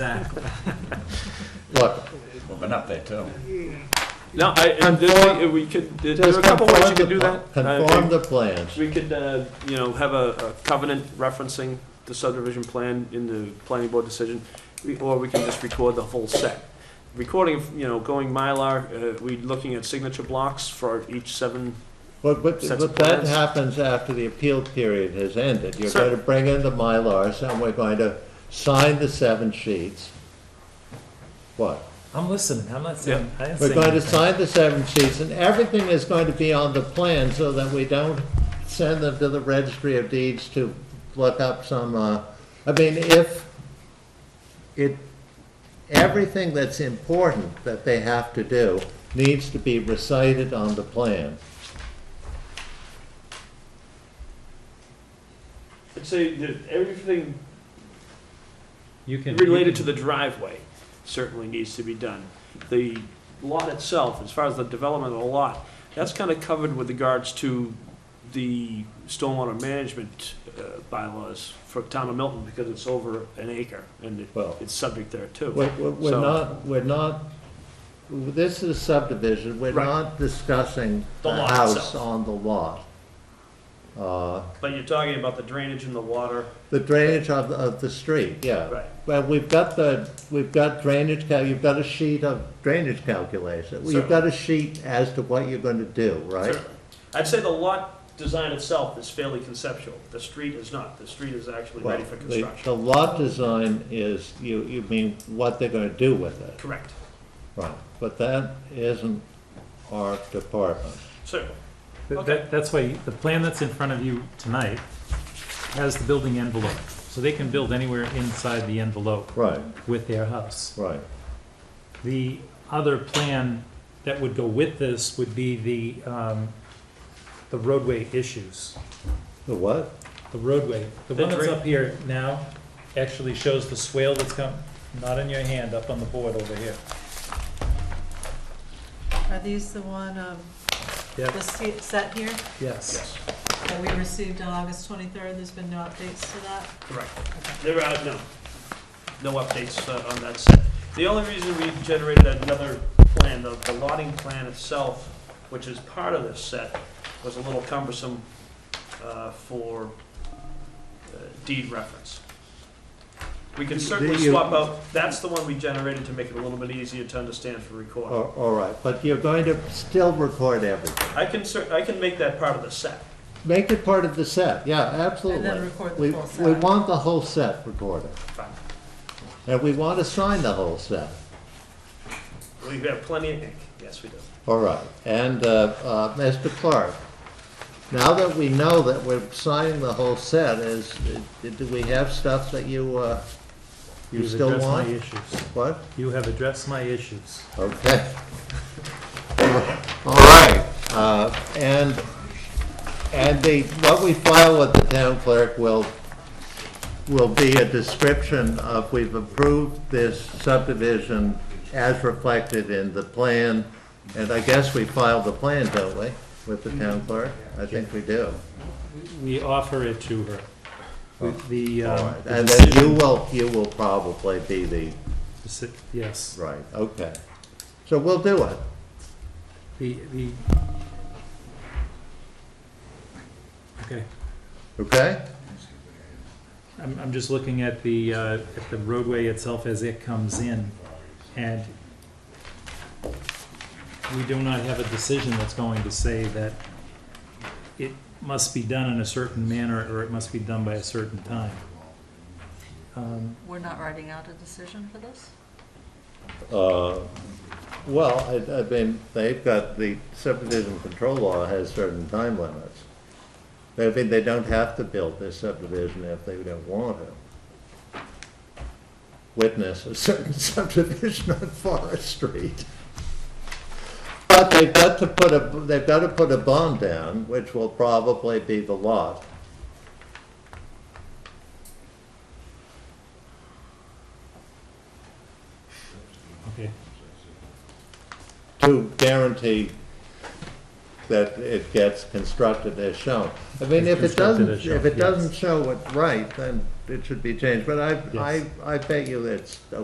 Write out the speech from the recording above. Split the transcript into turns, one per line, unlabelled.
Exactly.
Look,
Well, been up there too.
No, I, and this- we could, there's a
just
couple ways
conform
you could do
the,
that.
pl-
Uh,
conform the plans.
We could, uh, you know, have a a covenant referencing the subdivision plan in the planning board decision, we- or we can just record the whole set. Recording, you know, going Mylar, uh, we looking at signature blocks for each seven,
But, but,
sets of
but that
plans.
happens after the appeal period has ended. You're
Sure.
going to bring in the Mylars and we're going to sign the seven sheets. What?
I'm listening. I'm not saying. I didn't
We're
say
going to
anything.
sign the seven sheets and everything is going to be on the plan so that we don't send them to the registry of deeds to look up some, uh, I mean, if it, everything that's important that they have to do needs to be recited on the plan.
I'd say that everything
You can.
related to the driveway certainly needs to be done. The lot itself, as far as the development of the lot, that's kind of covered with regards to the stormwater management uh, bylaws for town of Milton, because it's over an acre, and it-
Well-
it's subject there too.
We're, we're- we're
So-
not, we're not, this is subdivision, we're
Right.
not discussing
The
the
lot
house
itself.
on the lot. Uh,
But you're talking about the drainage and the water.
The drainage of, of the street, yeah.
Right.
Well, we've got the, we've got drainage, cal- you've got a sheet of drainage calculation. You've
Certainly.
got a sheet as to what you're gonna do, right?
Certainly. I'd say the lot design itself is fairly conceptual. The street is not. The street is actually
Well,
ready for
the-
construction.
The lot design is, you, you mean what they're gonna do with it,
Correct.
right? But that isn't our department.
Certainly.
That-
Okay.
that- that's why the plan that's in front of you tonight has the building envelope, so they can build anywhere inside the envelope
Right,
with their house.
right.
The other plan that would go with this would be the um, the roadway issues.
The what?
The roadway, the one
The
that's
dra-
up here now actually shows the swale that's come, not in your hand, up on the board over here.
Are these the one, um,
Yeah,
this se- set here
yes.
Yes,
that we received on August twenty-third? There's been no updates to that?
correct. There are, no, no updates uh, on that set. The only reason we generated another plan, the the lotting plan itself, which is part of this set, was a little cumbersome uh, for uh, deed reference. We can certainly
The- you-
swap out, that's the one we generated to make it a little bit easier to understand for recording.
All, all right, but you're going to still record everything.
I can cer, I can make that part of the set.
Make it part of the set, yeah, absolutely.
record the
We-
whole
We
set.
want the whole set recorded.
Fine.
And we want to sign the whole set.
We have plenty of ink, yes, we do.
All right. And uh, uh, Mr. Clark, now that we know that we're signing the whole set, is, uh, do we have stuff that you, uh, you
You've
still
addressed my
want?
issues.
What?
You have addressed my issues.
Okay. All right. Uh, And, and the, what we file with the town clerk will, will be a description of, we've approved this subdivision as reflected in the plan, and I guess we filed the plan, don't we, with the town clerk? I think we do.
We offer it to her. The,
All
um,
right.
the
And then you
decision-
will, you will probably be the,
deci- Yes,
right, okay. So we'll do it.
the, the. Okay,
Okay?
I'm, I'm just looking at the, uh, at the roadway itself as it comes in, and we do not have a decision that's going to say that it must be done in a certain manner, or it must be done by a certain time. Um,
We're not writing out a decision for this?
Uh, Well, I, I mean, they've got, the subdivision control law has certain time limits. I mean, they don't have to build this subdivision if they don't want to. Witness a certain subdivision on Forest Street. But they've got to put a, they've got to put a bond down, which will probably be the lot.
Okay,
to guarantee that it gets constructed as shown. I mean, if it
It's constructed
doesn't,
as shown,
if it
yes.
doesn't show it right, then it should be changed, but I, I,
Yes.
I bet you it's a